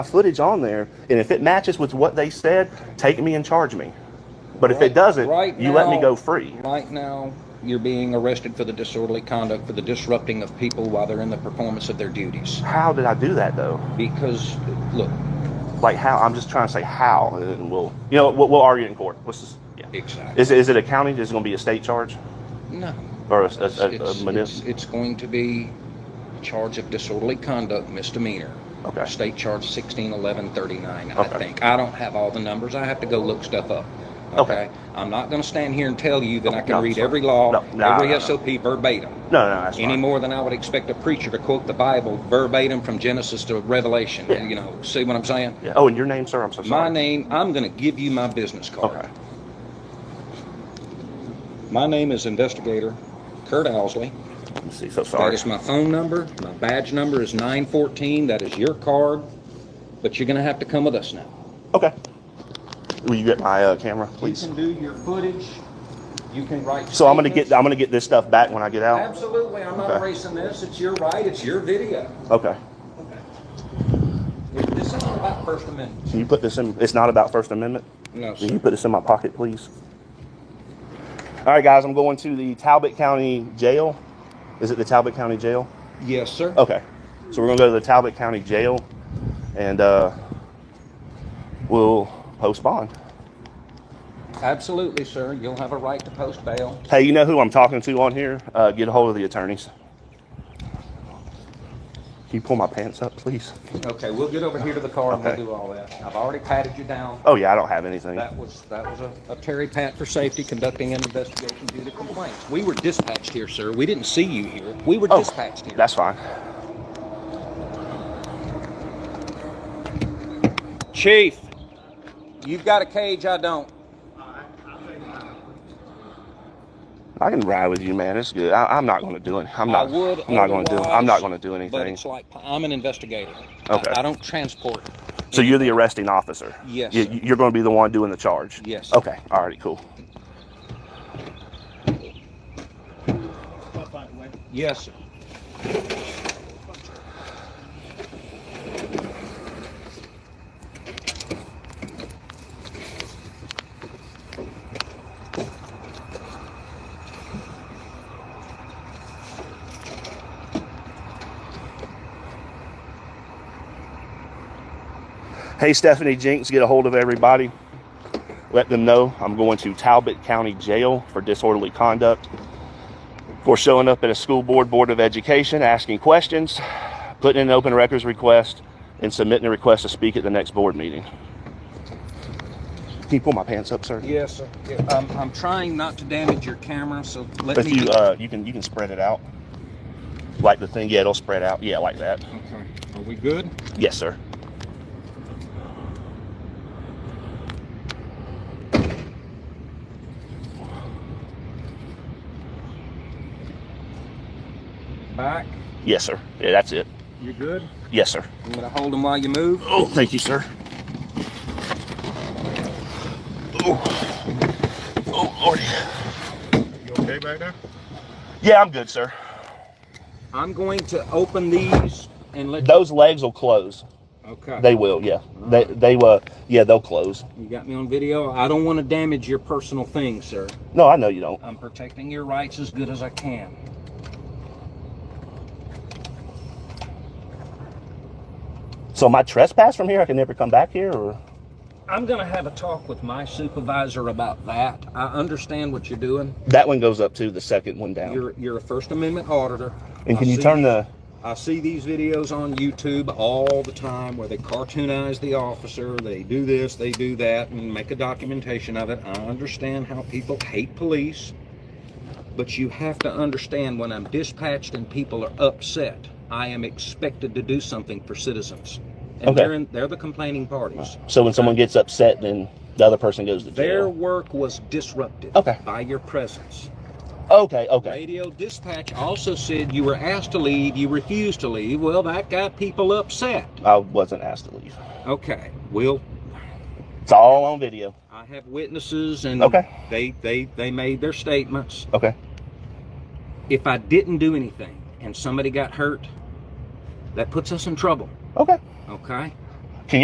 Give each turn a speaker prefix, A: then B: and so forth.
A: footage on there, and if it matches with what they said, take me and charge me. But if it doesn't,
B: Right
A: you let me
B: now-
A: go free.
B: Right now, you're being arrested for the disorderly conduct, for the disrupting of people while they're in the performance of their duties.
A: How did I do that though?
B: Because, look,
A: Like how? I'm just trying to say how, and then we'll, you know, we'll, we'll argue in court. Let's just, yeah.
B: exactly.
A: Is, it- is it a county? Is it going to be a state charge
B: No.
A: or a, a,
B: It's,
A: a, a
B: it's-
A: munis-
B: it's- it's going to be a charge of disorderly conduct misdemeanor.
A: Okay.
B: State charge sixteen eleven thirty-nine, I
A: Okay.
B: think. I don't have all the numbers. I have to go look stuff up.
A: Okay.
B: I'm not gonna stand here and tell you that I
A: No,
B: can read
A: sorry.
B: every law,
A: No, no, no,
B: every
A: no.
B: SOP verbatim.
A: No, no, that's
B: any
A: fine.
B: more than I would expect a preacher to quote the Bible verbatim from Genesis to Revelation.
A: Yeah.
B: You know, see what I'm saying?
A: Yeah. Oh, and your name, sir? I'm so sorry.
B: My name, I'm going to give you my business card.
A: Okay.
B: My name is Investigator Kurt Owsley.
A: Let me see. So
B: That
A: sorry.
B: is my phone number. My badge number is 914. That is your card. But you're going to have to come with us now.
A: Okay. Will you get my uh, camera, please?
B: You can do your footage. You can write.
A: So I'm gonna get
B: statements.
A: I'm gonna get this stuff back when I get out.
B: Absolutely. I'm not
A: Okay.
B: erasing this. It's your right. It's your video.
A: Okay.
B: This is not about First Amendment.
A: Can you put this in? It's not about First Amendment.
B: No,
A: Can you
B: sir.
A: put this in my pocket, please? All right, guys. I'm going to the Talbot County Jail. Is it the Talbot County Jail?
B: Yes, sir.
A: Okay. So we're gonna go to the Talbot County Jail, and uh, we'll post bond.
B: Absolutely, sir. You'll have a right to post bail.
A: Hey, you know who I'm talking to on here? Uh, get a hold of the attorneys. Can you pull my pants up, please?
B: Okay, we'll get over here to the car and we'll
A: Okay.
B: do all that. I've already patted you down.
A: Oh yeah, I don't have anything.
B: That was, that was a, a Terry pat for safety conducting an investigation due to complaints. We were dispatched here, sir. We didn't see you here. We were
A: Oh,
B: dispatched here.
A: That's fine.
B: Chief, you've got a cage, I don't.
A: I can ride with you, man. It's good. I, I'm not going to do it. I'm
B: I
A: not.
B: would.
A: I'm not going to do. I'm not
B: otherwise,
A: going to do
B: But
A: anything.
B: it's like, I'm an investigator. I-
A: Okay.
B: I don't transport.
A: So you're the arresting officer.
B: Yes,
A: You,
B: sir.
A: you're going to be the one doing the charge.
B: Yes.
A: Okay. All right. Cool.
B: Yes, sir.
A: Hey, Stephanie Jinks, get a hold of everybody. Let them know I'm going to Talbot County Jail for disorderly conduct, for showing up at a school board, board of education, asking questions, putting in an open records request, and submitting a request to speak at the next board meeting. Can you pull my pants up, sir?
B: Yes, sir. Yeah, I'm, I'm trying not to damage your camera, so let
A: If
B: me.
A: you uh, you can you can spread it out, like the thing. Yeah, it'll spread out. Yeah, like that.
B: Okay, are we good?
A: Yes, sir.
B: Back,
A: Yes, sir. Yeah, that's it.
B: you good?
A: Yes, sir.
B: I'm gonna hold them while you move.
A: Oh, thank you, sir. Oh, oh, Lord.
C: You okay back there?
A: Yeah, I'm good, sir.
B: I'm going to open these and let.
A: Those legs will close.
B: Okay.
A: They will. Yeah. They they will. yeah, they'll close.
B: You got me on video. I don't want to damage your personal things, sir.
A: No, I know you don't.
B: I'm protecting your rights as good as I can.
A: So my trespass from here, I can never come back here, or
B: I'm gonna have a talk with my supervisor about that. I understand what you're doing.
A: that one goes up too. The second one down.
B: You're you're a First Amendment auditor.
A: and can
B: I
A: you
B: see-
A: turn the?
B: I see these videos on YouTube all the time where they cartoonize the officer, they do this, they do that, and make a documentation of it. I understand how people hate police, but you have to understand when I'm dispatched and people are upset, I am expected to do something for citizens. And
A: Okay.
B: they're, in, they're the complaining parties.
A: So when someone gets upset, then the other person goes to
B: Their
A: jail.
B: work was disrupted
A: Okay.
B: by your presence.
A: Okay. Okay.
B: Radio dispatch also said you were asked to leave, you refused to leave. Well, that got people upset.
A: I wasn't asked to leave.
B: Okay, well,
A: It's all on video.
B: I have witnesses and
A: Okay.
B: they, they, they made their statements.
A: Okay.
B: If I didn't do anything and somebody got hurt, that puts us in trouble,
A: Okay.
B: okay?